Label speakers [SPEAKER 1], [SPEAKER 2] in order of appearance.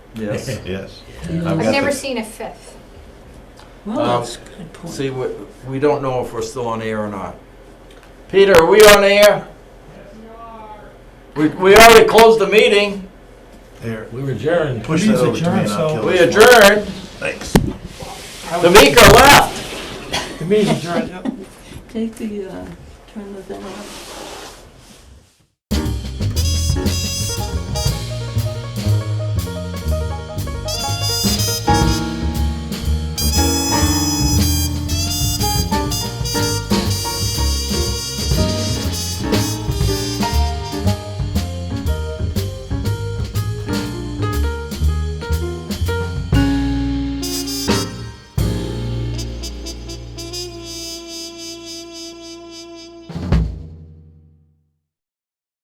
[SPEAKER 1] Yes.
[SPEAKER 2] Yes.
[SPEAKER 3] I've
[SPEAKER 4] I've
[SPEAKER 2] got
[SPEAKER 4] never
[SPEAKER 2] this.
[SPEAKER 4] seen a fifth.
[SPEAKER 3] Well,
[SPEAKER 1] Um,
[SPEAKER 3] Oh, that's a good point.
[SPEAKER 1] See, we, we don't know if we're still on air or not. Peter, are we on air? We, we already closed the meeting.
[SPEAKER 2] There.
[SPEAKER 5] We were adjourned.
[SPEAKER 2] Push
[SPEAKER 6] Please
[SPEAKER 2] that over to
[SPEAKER 6] adjourn,
[SPEAKER 2] me and I'll
[SPEAKER 6] so-
[SPEAKER 2] kill
[SPEAKER 1] We
[SPEAKER 2] this one.
[SPEAKER 1] adjourned.
[SPEAKER 2] Thanks.
[SPEAKER 1] Tamika left.
[SPEAKER 6] The meeting's adjourned.
[SPEAKER 3] Take the, uh, turn the thing off.